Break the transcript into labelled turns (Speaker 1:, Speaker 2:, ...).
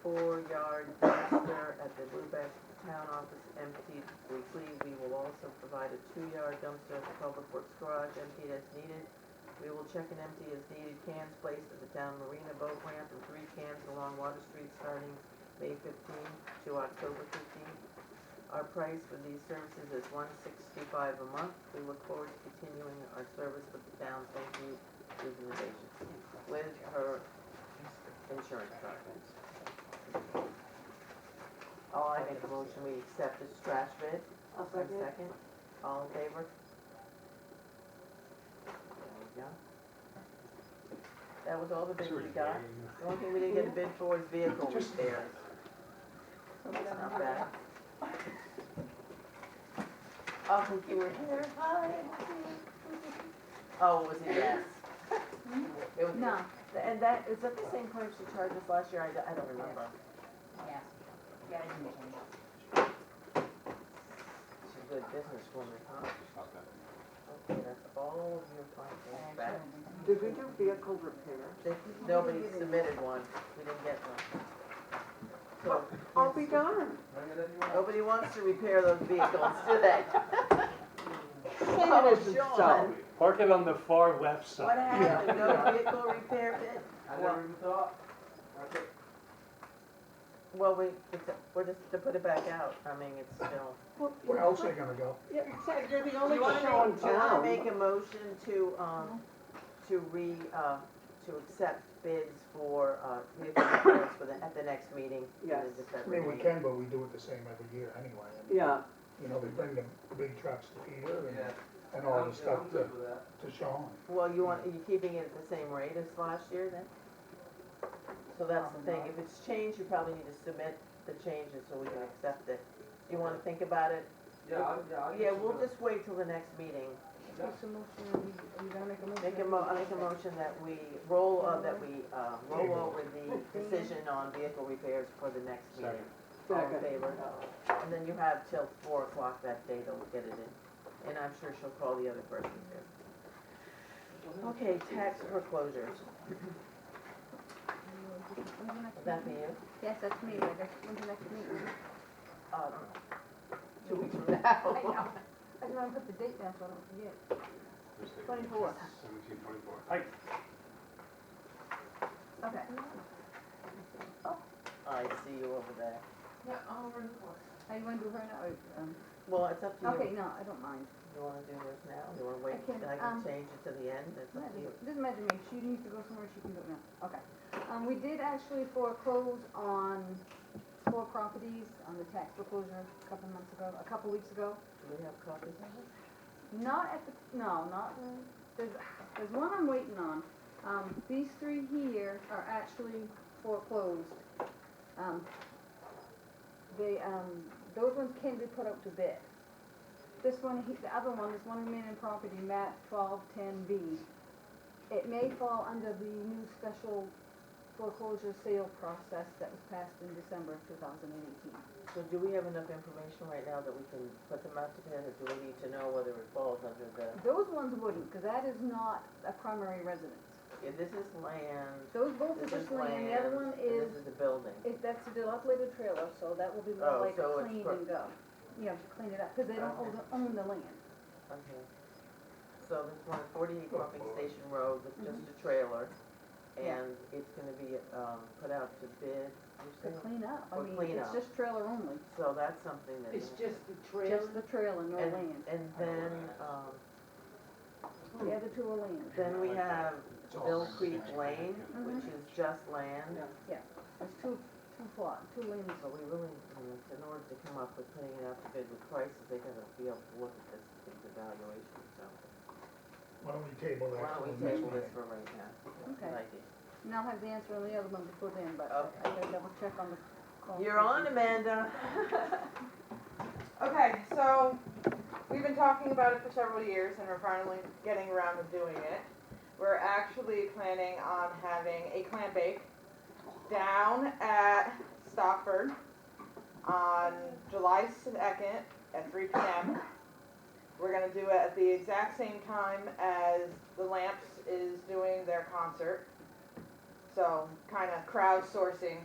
Speaker 1: four-yard dumpster at the Lubec Town Office emptied weekly. We will also provide a two-yard dumpster at the Public Works Garage emptied as needed. We will check and empty as needed cans placed at the town marina boat ramp and three cans along Water Street starting May fifteenth to October fifteenth. Our price for these services is one sixty-five a month. We look forward to continuing our service with the town. Thank you, Susan Evasions. With her insurance company. All I make a motion, we accept this trash bid.
Speaker 2: I'll
Speaker 1: One
Speaker 2: second.
Speaker 1: second. All in favor? There we go. That was all the bids we got. The only thing we didn't get a bid for is vehicle repairs. That's not bad. Oh, you were here, hi. Oh, was it yes? It was-
Speaker 3: No.
Speaker 1: And that, is that the same price she charged us last year? I don't- I don't remember.
Speaker 3: Yeah, yeah, I didn't change.
Speaker 1: She's a good businesswoman, huh?
Speaker 4: Okay.
Speaker 1: Okay, that's all of your findings back.
Speaker 2: Did we do vehicle repair?
Speaker 1: They- Nobody submitted one, we didn't get one. So,
Speaker 2: I'll be darned.
Speaker 1: nobody wants to repair those vehicles, do they?
Speaker 2: Saying it isn't
Speaker 1: Oh,
Speaker 2: so.
Speaker 1: Sean.
Speaker 5: Park it on the far left
Speaker 1: What
Speaker 5: side.
Speaker 1: happened, no vehicle repair bid?
Speaker 4: I never even thought.
Speaker 1: Well, we, it's, we're just to put it back out, I mean, it's still.
Speaker 6: Where else are they gonna go?
Speaker 2: Yeah, exactly. You're the
Speaker 1: Do
Speaker 2: only
Speaker 1: you wanna
Speaker 2: show in
Speaker 1: make- do you wanna
Speaker 2: town. Mm-hmm.
Speaker 1: make a motion to, um, to re, uh, to accept bids for, uh, vehicle repairs for the, at the next meeting? in the
Speaker 2: Yes.
Speaker 6: I
Speaker 1: December
Speaker 6: mean, we
Speaker 1: meeting?
Speaker 6: can, but we do it the same every year anyway. And,
Speaker 2: Yeah,
Speaker 6: You know, they bring the big trucks to Peter and,
Speaker 4: Yeah.
Speaker 6: and all the
Speaker 4: I'm
Speaker 6: stuff to,
Speaker 4: good with that.
Speaker 6: to Sean.
Speaker 1: Well, you want, are you keeping it at the same rate as last year then? So that's the thing, if it's changed, you probably need to submit the changes so we can accept it. Do you wanna think about it?
Speaker 4: Yeah, I, yeah, I.
Speaker 1: Yeah, we'll just wait till the next meeting.
Speaker 4: That's
Speaker 1: Make a mo, I make a motion that we roll, uh, that we, uh, roll over the decision on vehicle repairs for the next meeting. All in
Speaker 2: Second.
Speaker 1: favor? And then you have till four o'clock that day to get it in, and I'm sure she'll call the other person too. Okay, tax foreclosures. Would that be you?
Speaker 3: Yes, that's me, Linda. When's the next meeting?
Speaker 1: Uh, Two weeks from now.
Speaker 3: I know. I just wanna put the date down so I don't forget. Twenty-four.
Speaker 4: Seventeen twenty-four.
Speaker 3: Okay.
Speaker 1: I see you over there.
Speaker 3: Are you gonna do her now or,
Speaker 1: Oh,
Speaker 3: um,
Speaker 1: Well, it's up to you.
Speaker 3: okay, no, I don't mind.
Speaker 1: You wanna do this now? You wanna wait?
Speaker 3: I can,
Speaker 1: till I
Speaker 3: um,
Speaker 1: can change it to the end. It's up to you.
Speaker 3: Doesn't doesn't matter to me, If she needs to go somewhere, she can go now, okay. Um, we did actually foreclose on four properties on the tax foreclosure a couple months ago, a couple weeks ago.
Speaker 1: Do we have copies of it?
Speaker 3: Not at the, no, not, there's, there's one I'm waiting on. Um, these three here are actually foreclosed. Um, they, um, those ones can be put up to bid. This one, he- the other one, this one remaining property, map twelve ten B. It may fall under the new special foreclosure sale process that was passed in December of two thousand and eighteen.
Speaker 1: So do we have enough information right now that we can put them out together? Do we need to know whether it falls under the,
Speaker 3: Those ones wouldn't, because that is not a primary residence.
Speaker 1: Yeah, this is land,
Speaker 3: Those both are
Speaker 1: this
Speaker 3: just
Speaker 1: is
Speaker 3: land,
Speaker 1: land,
Speaker 3: the other one
Speaker 1: and
Speaker 3: is,
Speaker 1: this is a building.
Speaker 3: if that's a dilapidated trailer, so that will be
Speaker 1: Oh,
Speaker 3: more like
Speaker 1: so it's
Speaker 3: a clean
Speaker 1: pro-
Speaker 3: and go. You have to clean it up, because they don't own,
Speaker 1: Okay.
Speaker 3: the- own the land.
Speaker 1: Okay. So this one, forty-eight pumping station road, it's just a trailer,
Speaker 3: Mm-hmm. Yeah.
Speaker 1: and it's gonna be, um, put out to bid, you
Speaker 3: To
Speaker 1: said?
Speaker 3: clean up,
Speaker 1: For
Speaker 3: I mean,
Speaker 1: clean
Speaker 3: it's
Speaker 1: up.
Speaker 3: just trailer only,
Speaker 1: So that's something that.
Speaker 2: It's just the trail.
Speaker 3: just the trailer, no
Speaker 1: And,
Speaker 3: land.
Speaker 1: and then, um,
Speaker 3: The other two are land,
Speaker 1: then we have
Speaker 6: It's all
Speaker 1: Bill
Speaker 6: the same
Speaker 1: Creek
Speaker 6: thing.
Speaker 1: Lane, which
Speaker 3: Mhm.
Speaker 1: is just land.
Speaker 2: Yeah.
Speaker 3: there's two, two plot, two lanes.
Speaker 1: So we really, I mean, in order to come up with putting it out to bid with prices, they gotta be able to look at this, these evaluations, so.
Speaker 6: Why don't we table
Speaker 1: Why
Speaker 6: that
Speaker 1: don't
Speaker 6: till
Speaker 1: we
Speaker 6: the next
Speaker 1: table this
Speaker 6: meeting?
Speaker 1: for right now? Good
Speaker 3: Okay,
Speaker 1: idea.
Speaker 3: and I'll have the answer on the other one before then, but
Speaker 1: Okay.
Speaker 3: I gotta double check on the. call.
Speaker 1: You're on, Amanda.
Speaker 7: Okay, so we've been talking about it for several years and we're finally getting around to doing it. We're actually planning on having a clam bake down at Stockford on July second at three P M. We're gonna do it at the exact same time as the Lamps is doing their concert. So kinda crowdsourcing